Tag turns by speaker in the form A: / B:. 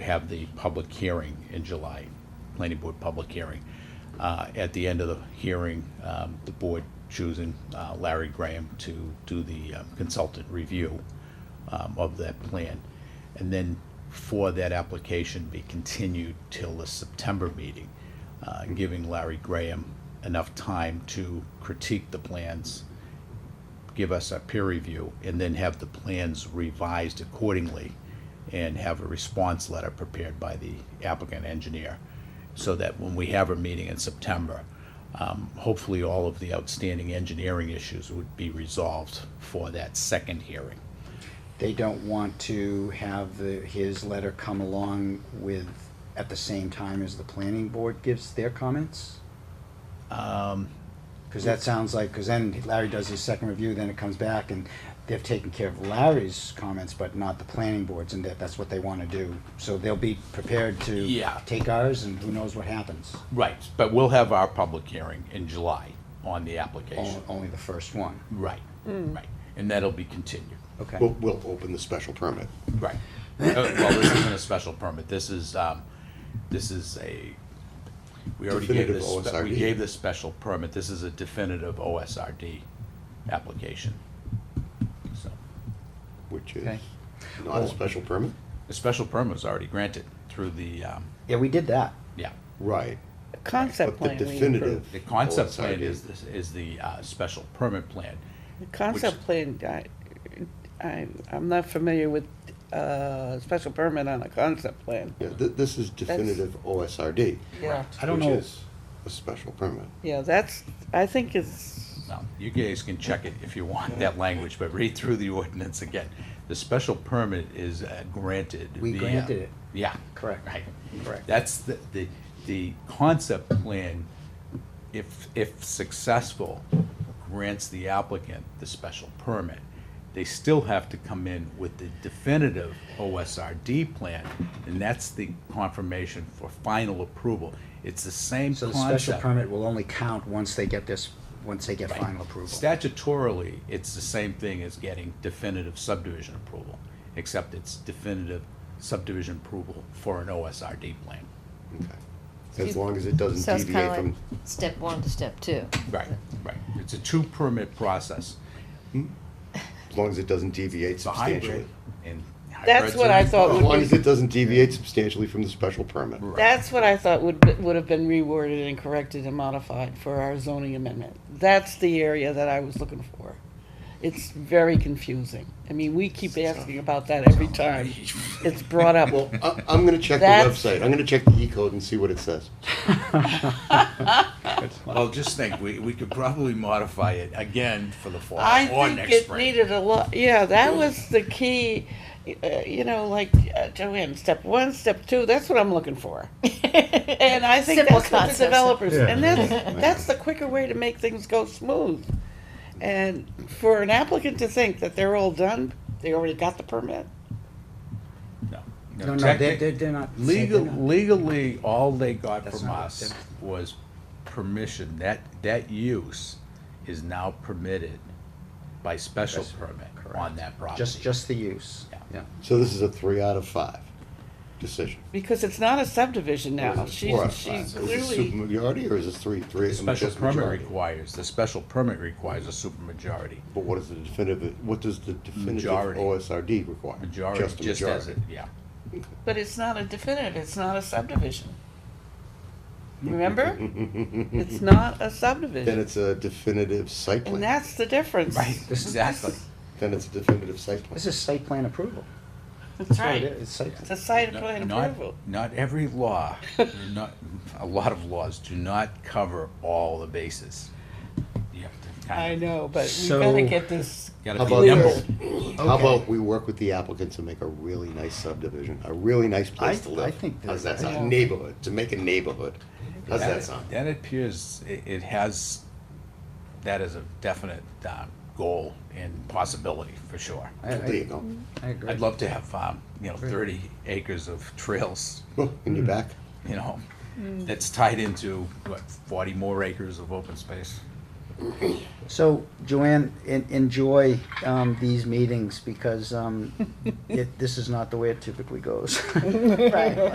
A: have the public hearing in July, planning board public hearing. Uh, At the end of the hearing, um, the board choosing uh, Larry Graham to do the um, consultant review um, of that plan. And then for that application be continued till the September meeting, uh, giving Larry Graham enough time to critique the plans, give us a peer review, and then have the plans revised accordingly, and have a response letter prepared by the applicant engineer, so that when we have a meeting in September, um, hopefully all of the outstanding engineering issues would be resolved for that second hearing.
B: They don't want to have the, his letter come along with, at the same time as the planning board gives their comments? Because that sounds like, because then Larry does his second review, then it comes back and they've taken care of Larry's comments, but not the planning boards, and that, that's what they want to do. So they'll be prepared to
A: Yeah.
B: take ours, and who knows what happens,
A: Right, but we'll have our public hearing in July on the
B: O-
A: application.
B: only the first one.
A: Right, right, and that'll be continued.
B: Okay.
C: We'll, we'll open the special permit.
A: Right. Uh, Well, this isn't a special permit, this is, um, this is a, we already gave
C: Definitive
A: this, spe- we
C: OSRD.
A: gave this special permit, this is a definitive OSRD application. So,
C: Which
B: Okay.
C: is not a special permit?
A: The special permit was already granted through the, um,
B: Yeah, we did that.
A: yeah,
C: Right.
D: Concept
C: But the
D: plan we approved.
C: definitive.
A: the concept plan
C: OSRD
A: is, this- is the uh, special permit plan.
D: The concept plan, I, I, I'm not familiar with, uh, special permit on a concept plan.
C: Yeah, th- this is definitive OSRD.
D: Yeah.
B: I don't
C: which
B: know.
C: is A special permit.
D: Yeah, that's, I think it's,
A: Now, you guys can check it if you want that language, but read through the ordinance again. The special permit is uh, granted.
B: We
A: via-
B: granted it.
A: Yeah.
B: Correct.
A: Right.
B: Correct.
A: That's the, the, the concept plan, if, if successful, grants the applicant the special permit. They still have to come in with the definitive OSRD plan, and that's the confirmation for final approval. It's the same
B: So
A: concept.
B: the special permit will only count once they get this, once they get
A: Right.
B: final approval.
A: Statutorily, it's the same thing as getting definitive subdivision approval, except it's definitive subdivision approval for an OSRD plan.
C: Okay. As long as it doesn't
E: So it's kind
C: deviate
E: of
C: from,
E: like step one to step two.
A: Right, right. It's a two-permit process.
C: as long as it doesn't deviate
A: It's a hybrid,
C: substantially.
A: and.
D: that's what I
A: hybrids are-
C: As
D: thought
C: long
D: would
C: as
D: be,
C: it doesn't deviate substantially from the special permit.
D: that's what I thought would, be- would have been reworded and corrected and modified for our zoning amendment. That's the area that I was looking for. It's very confusing. I mean, we keep asking about that every time it's brought up.
C: Well, I, I'm gonna check the
D: That's-
C: website. I'm gonna check the E code and see what it says.
A: Well, just think, we, we could probably modify it again for the fall
D: I
A: or
D: think
A: next
D: it
A: spring.
D: needed a lot. Yeah, that was the key. Uh, you know, like uh, Joanne, step one, step two. That's what I'm looking for. And I think
E: Simple
D: that's what the
E: concepts.
D: developers. And that's that's the quicker way to make things go smooth. And for an applicant to think that they're all done, they already got the permit.
A: No,
B: No, no, they're, they're they're not.
A: Legal,
B: they're not.
A: legally, all they got
B: That's
A: from
B: not what
A: us was permission, that, that use is now permitted by special permit on that property.
B: Just, just the use.
A: Yeah.
B: Yeah.
C: So this is a three out of five decision.
D: Because it's not a subdivision now.
C: Or is it four out
D: She's,
C: of five? Is
D: she's
C: it
D: clearly,
C: supermajority or is this three, three?
A: The Special
C: just
A: permit
C: majority?
A: requires, the special permit requires a supermajority,
C: But what is the definitive, what does the definitive
A: Majority.
C: OSRD require?
A: majority,
C: a
A: just as it,
C: majority.
A: yeah.
D: but it's not a definitive, it's not a subdivision. Remember? It's not a subdivision.
C: Then it's a definitive site
D: And
C: plan.
D: that's the difference.
A: Right, exactly.
C: Then it's a definitive site plan.
B: This is site plan approval.
D: That's
B: That's what it
D: right.
B: is, It's site plan.
D: It's a site
A: Not-
D: plan
A: not-
D: approval.
A: Not every law, not, a lot of laws do not cover all the bases. You have to
D: I
A: kind of,
D: know, but we
B: So-
D: gotta get this,
A: gotta
C: How
A: be
C: about
A: nimble.
C: this? How
B: Okay.
C: about we work with the applicant to make a really nice subdivision, a really nice place
B: I-
C: to
B: I
C: live?
B: think that-
C: How's that
D: Yeah.
C: sound? Neighborhood, to make a neighborhood. How's that sound?
A: That appears, it, it has, that is a definite, um, goal and possibility, for sure.
B: I- Mm.
C: There you
B: I
C: go.
B: I agree.
A: I'd love to have, um, you know, thirty acres of trails,
C: Oh, In your back.
A: you know, that's tied into, what, forty more acres of open space?
B: So Joanne, en- enjoy um, these meetings because um, it, this is not the way it typically goes.
F: Right.